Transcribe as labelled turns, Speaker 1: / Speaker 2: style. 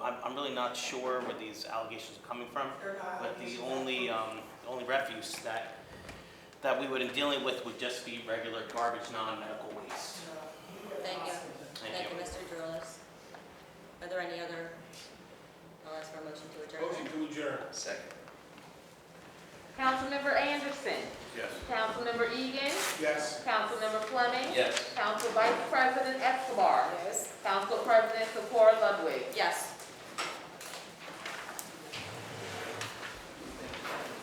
Speaker 1: I'm really not sure where these allegations are coming from.
Speaker 2: They're not
Speaker 1: But the
Speaker 2: allegations.
Speaker 1: only, um, the only refuse that, that we would be dealing with would just be regular garbage, non-medical waste.
Speaker 3: Thank you.
Speaker 1: Thank
Speaker 3: Thank
Speaker 1: you.
Speaker 3: you, Mr. Drillis. Are there any other, I'll ask for a motion to adjourn.
Speaker 4: Motion to adjourn.
Speaker 5: Second.
Speaker 6: Councilmember Anderson.
Speaker 4: Yes.
Speaker 6: Councilmember Egan.
Speaker 4: Yes.
Speaker 6: Councilmember Fleming.
Speaker 5: Yes.
Speaker 6: Council Vice President Escobar.
Speaker 2: Yes.
Speaker 6: Council President Sephora Ludwig.
Speaker 3: Yes.